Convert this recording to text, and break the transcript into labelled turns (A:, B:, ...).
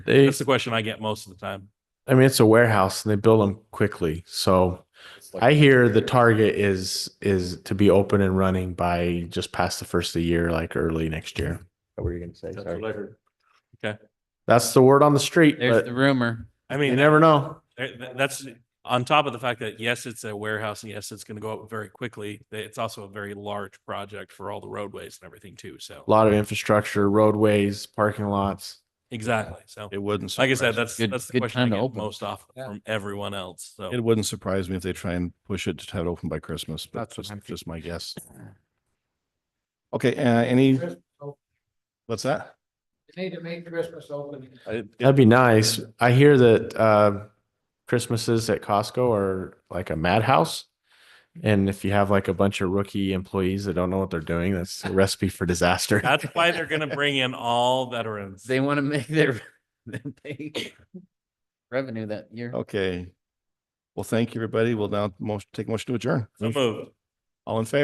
A: They,
B: That's the question I get most of the time.
A: I mean, it's a warehouse and they build them quickly. So I hear the target is, is to be open and running by just past the first of the year, like early next year.
C: What were you gonna say?
B: That's
C: Sorry.
B: what I heard.
A: That's the word on the street,
D: There's
A: but
D: the rumor.
B: I
A: you
B: mean, eh,
A: never know.
B: th- th- that's on top of the fact that, yes, it's a warehouse and yes, it's going to go up very quickly. th- It's also a very large project for all the roadways and everything too. So.
A: A lot of infrastructure, roadways, parking lots.
B: Exactly. So
E: It wouldn't.
B: like I said,
E: surprise-
B: that's,
D: Good-
B: that's the
D: good
B: question
D: time to
B: I get
D: open.
B: most off
C: Yeah.
B: from everyone else. So.
E: It wouldn't surprise me if they try and push it to have it open by Christmas, but
C: That's what
E: just,
C: I'm thinking.
E: just my guess. Okay, uh, any? What's that?
F: They need to make Christmas open.
E: I-
A: That'd be nice. I hear that, uh, Christmases at Costco are like a madhouse. And if you have like a bunch of rookie employees that don't know what they're doing, that's a recipe for disaster.
B: That's why they're gonna bring in all veterans.
D: They want to make their their big revenue that year.
E: Okay. Well, thank you, everybody. We'll now most, take motion to adjourn.
B: So moved.
E: All in favor?